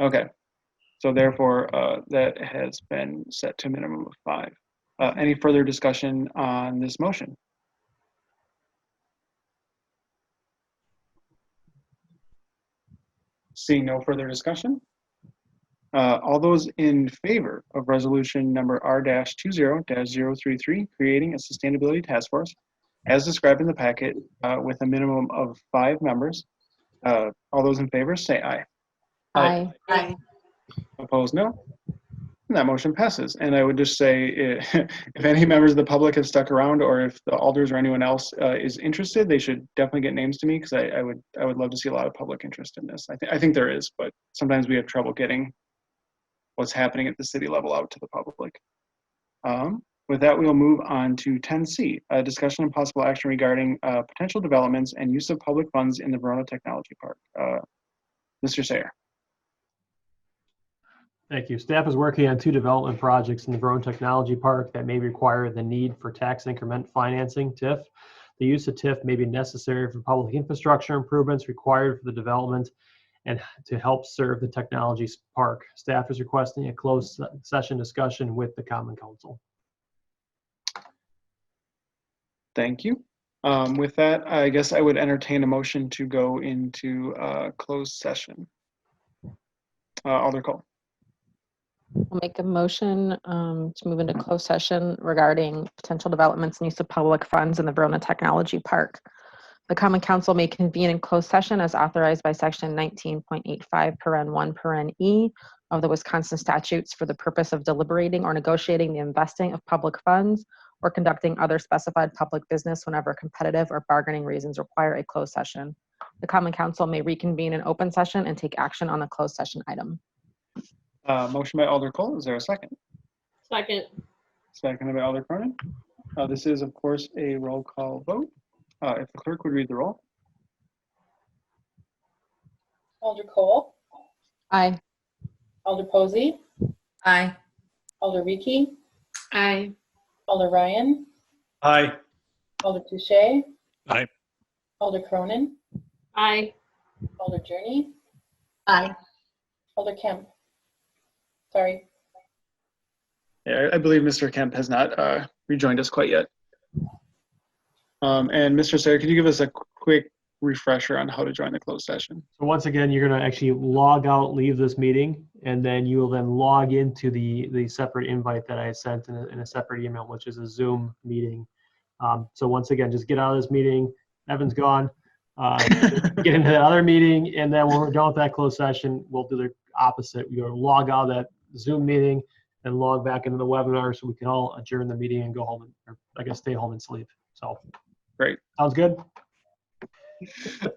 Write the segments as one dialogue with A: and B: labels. A: Okay. So therefore, uh, that has been set to a minimum of five. Uh, any further discussion on this motion? Seeing no further discussion? Uh, all those in favor of resolution number R dash two zero dash zero three three, creating a sustainability task force as described in the packet, uh, with a minimum of five members. Uh, all those in favor, say aye. Aye.
B: Aye.
C: Aye.
A: Opposed, no. And that motion passes. And I would just say, eh, if any members of the public have stuck around, or if the alders or anyone else uh, is interested, they should definitely get names to me because I, I would I would love to see a lot of public interest in this. I think I think there is, but sometimes we have trouble getting what's happening at the city level out to the public. Um, with that, we'll move on to 10C, a discussion and possible action regarding uh, potential developments and use of public funds in the Verona Technology Park. Uh, Mr. Sayer.
D: Thank you. Staff is working on two development projects in the Verona Technology Park that may require the need for tax increment financing, TIF. The use of TIF may be necessary for public infrastructure improvements required for the development and to help serve the technology park. Staff is requesting a closed se- session discussion with the Common Council.
A: Thank you. Um, With that, I guess I would entertain a motion to go into uh, closed session. Uh, Alder Cole,
B: I'll make a motion um, to move into closed session regarding potential developments and use of public funds in the Verona Technology Park. The Common Council may convene in closed session as authorized by Section 19.85, paren 1, paren E of the Wisconsin statutes for the purpose of deliberating or negotiating the investing of public funds or conducting other specified public business whenever competitive or bargaining reasons require a closed session. The Common Council may reconvene in open session and take action on the closed session item.
A: Uh, motion by Alder Cole, is there a second?
C: Second.
A: Second by Alder Cronin. Uh, This is, of course, a roll call vote. Uh, If the clerk would read the roll.
E: Alder Cole,
B: Aye.
E: Alder Posey,
C: Aye.
E: Alder Ricky,
C: Aye.
E: Alder Ryan,
F: Aye.
E: Alder Touche.
F: Aye.
E: Alder Cronin,
C: Aye.
E: Alder Journey,
C: Aye.
E: Alder Kemp. Sorry,
A: Yeah, I I believe Mr. Kemp has not uh, rejoined us quite yet. Um, And Mr. Sayer, could you give us a qu- quick refresher on how to join the closed session?
D: So once again, you're going to actually log out, leave this meeting, and then you will then log into the, the separate invite that I sent in a, in a separate email, which is a Zoom meeting. Um, so once again, just get out of this meeting. Evan's gone. Uh, get into the other meeting, and then when we're done with that closed session, we'll do the opposite. We will log out of that Zoom meeting and log back into the webinar so we can all adjourn the meeting and go home, and, or I guess stay home and sleep. So.
A: Great.
D: Sounds good?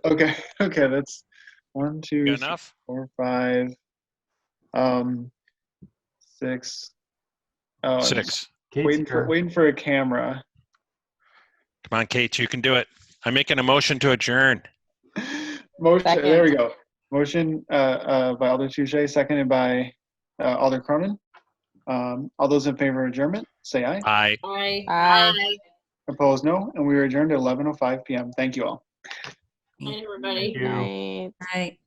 A: Okay, okay, that's one, two,
F: Good
A: three,
F: enough?
A: four, five, um, six. Oh, I'm just
F: Six.
D: Kate's
A: Waiting for,
D: here.
A: waiting for a camera.
F: Come on, Kate, you can do it. I'm making a motion to adjourn.
A: Motion, there we
B: Second.
A: go. Motion, uh, uh, by Alder Touche, seconded by, uh, Alder Cronin. Um, all those in favor of adjournment, say aye.
F: Aye.
C: Aye.
B: Aye.
A: Opposed, no. And we are adjourned at eleven oh five PM. Thank you all.
C: Night,
D: Thank
C: everybody.
D: you.
B: Night.
C: Aye.